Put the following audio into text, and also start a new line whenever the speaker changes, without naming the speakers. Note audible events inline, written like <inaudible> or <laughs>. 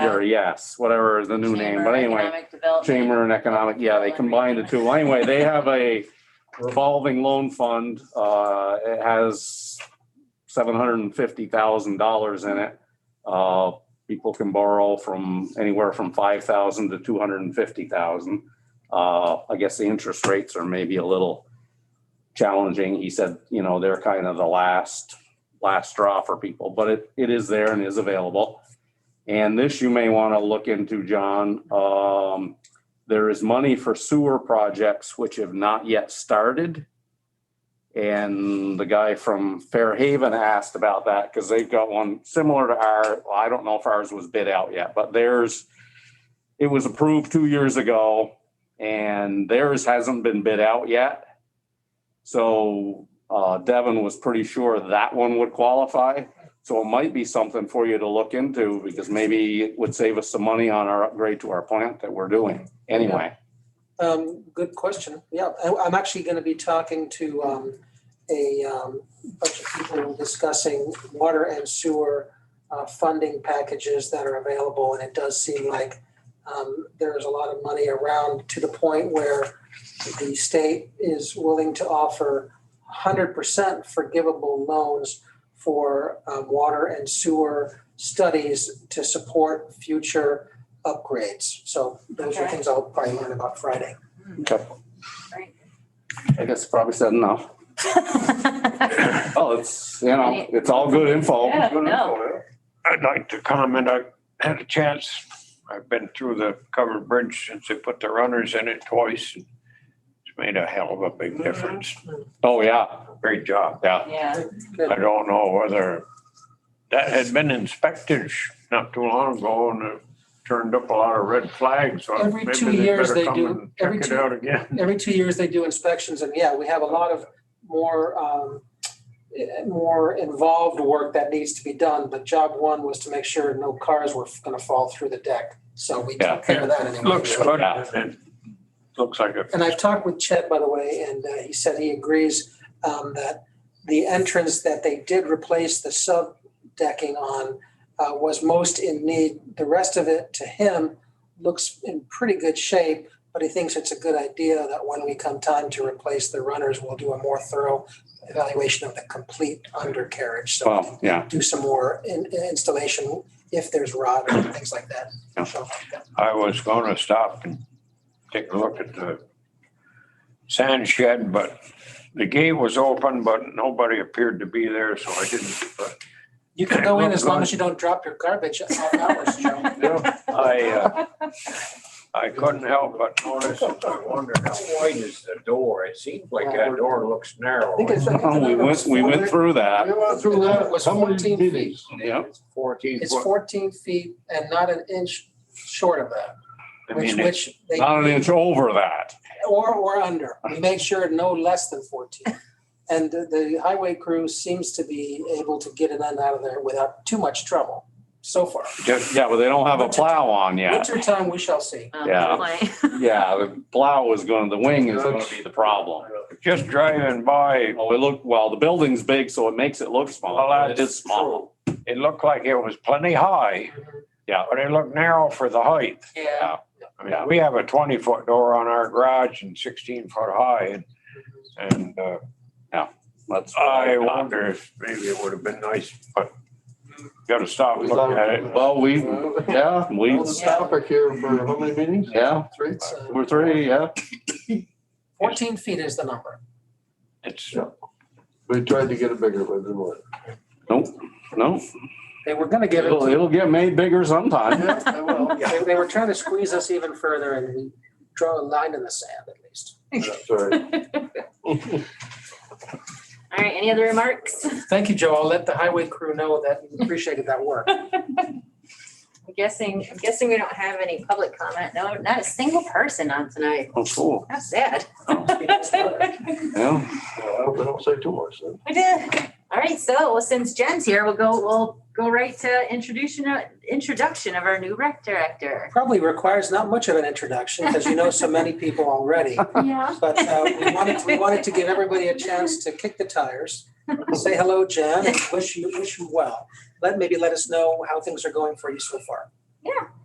or yes, whatever the new name,
Chamber
but
of
anyway.
Economic Development.
Chamber and Economic, yeah, they combined the two. Anyway, they have a revolving loan fund. Uh, it has seven hundred and fifty thousand dollars in it. Uh, people can borrow from anywhere from five thousand to two hundred and fifty thousand. Uh, I guess the interest rates are maybe a little challenging. He said, you know, they're kind of the last, last straw for people, but it, it is there and is available. And this you may want to look into, John. Um, there is money for sewer projects which have not yet started. And the guy from Fairhaven asked about that because they've got one similar to our, well, I don't know if ours was bid out yet, but theirs, it was approved two years ago and theirs hasn't been bid out yet. So uh, Devin was pretty sure that one would qualify. So it might be something for you to look into because maybe it would save us some money on our upgrade to our plant that we're doing anyway.
Um, good question. Yeah, I, I'm actually gonna be talking to, um, a, um, bunch of people discussing water and sewer, uh, funding packages that are available, and it does seem like, um, there's a lot of money around to the point where the state is willing to offer hundred percent forgivable loans for, um, water and sewer studies to support future upgrades. So those are
Okay.
things I'll probably learn about Friday.
Okay.
Great.
I guess probably said enough. Oh, it's, you know, it's all good info.
Yeah,
Good info,
I'd like to comment, I had a chance, I've been through the covered bridge since they put the runners in it twice. It's made a hell of a
Mm-hmm.
big difference,
Oh, yeah,
great job.
yeah.
<laughs> Yeah,
I don't know whether, that had been inspected sh- not too long ago and it turned up a lot of red flags. so
Every
maybe
two years
better
they
come
do-
and
every
Check it
two-
out again.
Every two years, they do inspections, and yeah, we have a lot of more, um, eh, more involved work that needs to be done, but job one was to make sure no cars were gonna fall through the deck, so we
Yeah.
took care of that anyway.
Looks good, and it looks like a
And I've talked with Chet, by the way, and uh, he said he agrees um, that the entrance that they did replace the sub decking on uh, was most in need. The rest of it, to him, looks in pretty good shape, but he thinks it's a good idea that when we come time to replace the runners, we'll do a more thorough evaluation of the complete undercarriage. So
Well, yeah,
do some more in- installation if there's rot or things like that.
Yeah.
So,
I was gonna stop and take a look at the sand shed, but the gate was open, but nobody appeared to be there, so I didn't. But
You can go in as long as you don't drop your garbage off hours, <laughs> Joe.
I, uh, I couldn't help but notice, and I wondered how wide is the door? It seems like that door looks narrow.
I think it's- I think the
we
number
went,
was
we went
400
through that.
We went through that,
It was
how many
14
meetings?
Yeah,
It's Fourteen
It's
foot.
fourteen feet and not an inch short of that,
I
which,
mean,
which they,
not an inch over that.
or, or under. We made sure no less than fourteen. And the, the highway crew seems to be able to get it in and out of there without too much trouble so far.
Just- Yeah, but they don't have a plow on yet.
Winter time, we shall see.
um,
Yeah.
complaint.
Yeah, the plow is going, the wing is going to be the problem.
Just driving by,
Oh, it looked, well, the building's big, so it makes it look small.
Well,
but It
that's
is small.
it looked like it was plenty high.
Yeah.
But it looked narrow for the height.
Yeah.
I mean, we have a twenty foot door on our garage and sixteen foot high and, and, uh,
That's.
I wonder if maybe it would have been nice, but gotta stop and look at it.
Well, we,
Well,
yeah, we,
the topic here for how many meetings?
yeah,
Three?
So
we're three, yeah.
uh, Fourteen feet is the number.
It's,
We tried to get it bigger, but it didn't work.
Nope, no.
They were gonna give it,
It'll,
to-
it'll get made bigger
<laughs>
sometime.
Yeah,
<laughs>
it will.
they, they were trying to squeeze us even further and we draw a line in the sand at least.
That's all right.
All right, any other remarks?
Thank you, Joe. I'll let the highway crew know that you appreciated that work.
I'm guessing, I'm guessing we don't have any public comment. No, not a single person on tonight.
Oh, cool.
How sad. <laughs>
Yeah.
Well, I hope they don't say too much then.
We did. All right, so well, since Jen's here, we'll go, we'll go right to introduction, introduction of our new rec director.
Probably requires not much of an introduction because you know so many people already.
Yeah.
But uh, we wanted, we wanted to give everybody a chance to kick the tires, say hello, Jen, and wish you, wish you well. Let, maybe let us know how things are going for you so far.